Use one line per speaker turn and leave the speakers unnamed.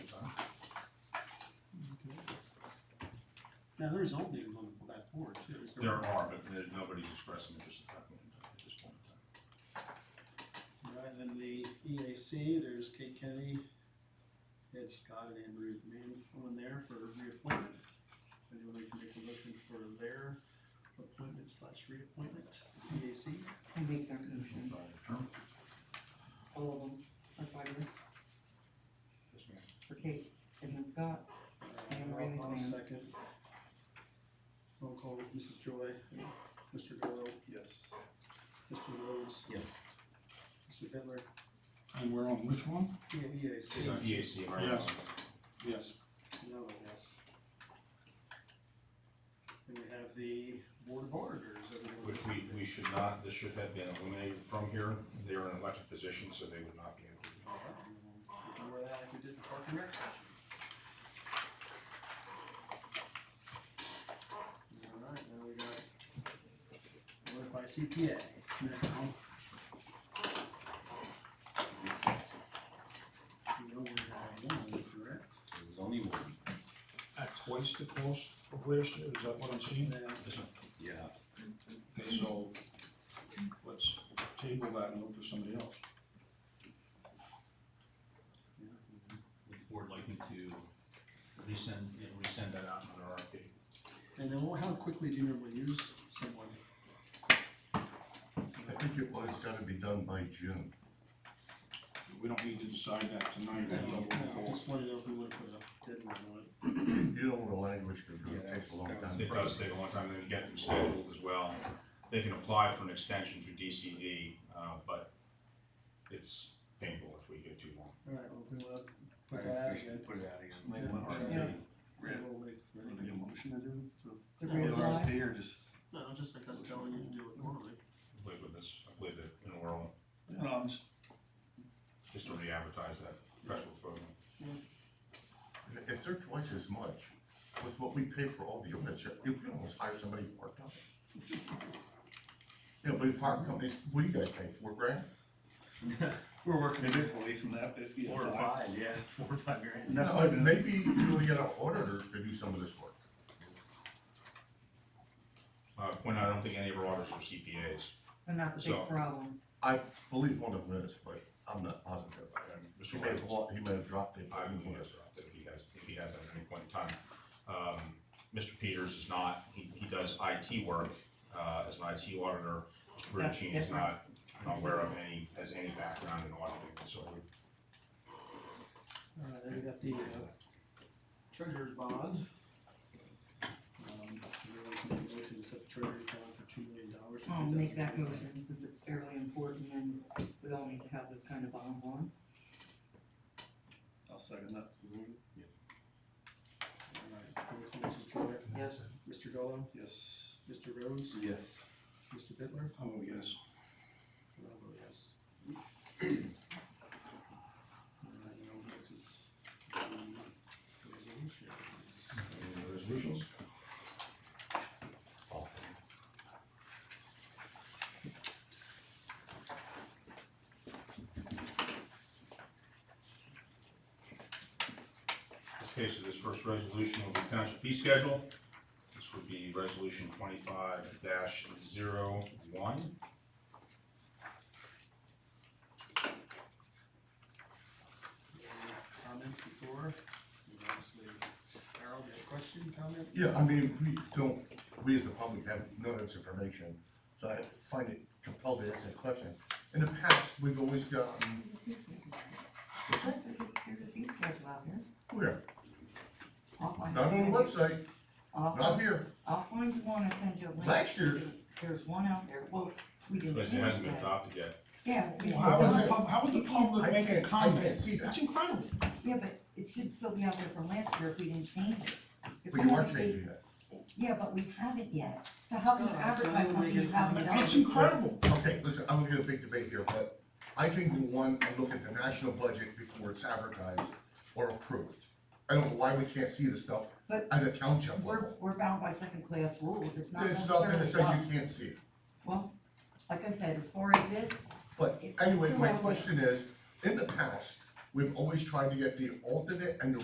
Now, there's openings on that board too. is
There are, but there- nobody's expressing interest at that point in time, at this point in time.
Right, and then the EAC, there's Kate Kenny, Ed Scott and Andrew Mann on there for reappointment. If Anyone can make a motion for their appointment slash reappointment, E EAC.
I make that motion,
Sure.
all of them, for Tyler,
Yes, ma'am.
for Kate, and then Scott, And Randy's
Uh, I'll- I'll
man.
second. Roll call, Mrs. Joy, Mr. Gallow,
Yes.
Mr. Rhodes,
Yes.
Mr. E Bittler,
And we're on which one?
yeah, EAC.
EAC, right?
Yes.
Yes.
No, yes. And we have the board of auditors. everyone
Which we, we should not, this should have been eliminated from here. They are an elected position, so they would not be able to.
All right, we Oh, can wear that like we did the park and rec section. All right, now we got work by CPA now. We only have one, correct?
It was only one.
At twice the cost of last year, is that what I'm seeing?
Now,
Yeah.
Okay, so let's table that and look for somebody else.
Would the board like me to resend, yeah, resend that out?
Another RFP.
And then how quickly do you normally use someone?
I think it was gotta be done by June.
We don't need to decide that tonight,
No,
that double
no,
cost.
Just wanted to know if we would put a deadline on it.
You know the language could go, it takes a long time.
It does take a long time to get them scheduled as well. They can apply for an extension through DCD, uh, but it's painful if we get too long.
All right, we'll do a, put that out again.
Put it out again.
Make one
RFP.
Yeah.
And we'll make-
motion to do?
to reapply.
or just?
No, just like I was telling you to do it normally.
I believe with this, I believe that in oral,
No, just
just to re-advertise that special program.
If they're twice as much, with what we pay for all the units, you can almost hire somebody part-time. You know, but fire companies, what do you guys pay, four grand?
We're working a bit away from that, but.
Four or five, yeah, four or five grand.
That's
No,
not even-
Uh, Maybe you really get an auditor to do some of this work.
Uh, point out, I don't think any of our auditors are CPAs.
and that's a
So-
big problem.
I believe one of them is, but I'm not positive.
And
He
Mr.
may have,
Lance,
lo- he may have dropped it.
I believe he has dropped it, if he has, if he has at any point in time. Um, Mr. Peters is not, he, he does IT work, uh, as an IT auditor. Mr.
That's
Bertucci is
different.
not, not aware of any, has any background in auditing, so we
All right, then we got the uh, treasurer's bond. Um, everyone can make a motion to set the treasurer's bond for two million dollars.
I'll Um, make that motion, since it's fairly important, and we all need to have those kind of bonds on.
I'll second that.
All right, roll call, Mrs. Joy,
Yes.
Mr. Gallow,
Yes.
Mr. Rhodes,
Yes.
Mr. Bittler.
Oh, yes.
And I'll vote yes. Alright, now next is the resolution.
Any other resolutions? All. Okay, so this first resolution will be township fee schedule. This would be resolution twenty-five dash zero one.
Any Comments before, And obviously, Harold, you have a question, comment?
Yeah, I mean, we don't, we as the public have no this information, so I find it compelled to ask that question. In the past, we've always gotten,
There's a fee schedule out there.
where?
I'll find
oh Not
it and
on the
send you-
website,
I'll-
not here.
I'll find you one and send you a link.
Last year's.
There's one out there, well, we didn't.
But it
change
hasn't been
that.
adopted yet.
Yeah. we-
How would the, pub- how would the
I
public make a
can't- I can't
comment?
see that.
That's incredible.
Yeah, but it should still be out there from last year if we didn't change it. If
But you are
we-
changing that.
Yeah, but we haven't yet, so how can you
No, so I'm
advertise something you
making-
haven't done?
That's incredible.
Okay, listen, I'm gonna get a big debate here, but I think we want to look at the national budget before it's advertised or approved. I don't know why we can't see this stuff
But-
as a township
We're,
level.
we're bound by second class rules, it's not
There's nothing that
necessarily
says
us.
you can't see it.
Well, like I said, as far as this,
But
It's
anyway,
still
my
out there.
question is, in the past, we've always tried to get the alternate and the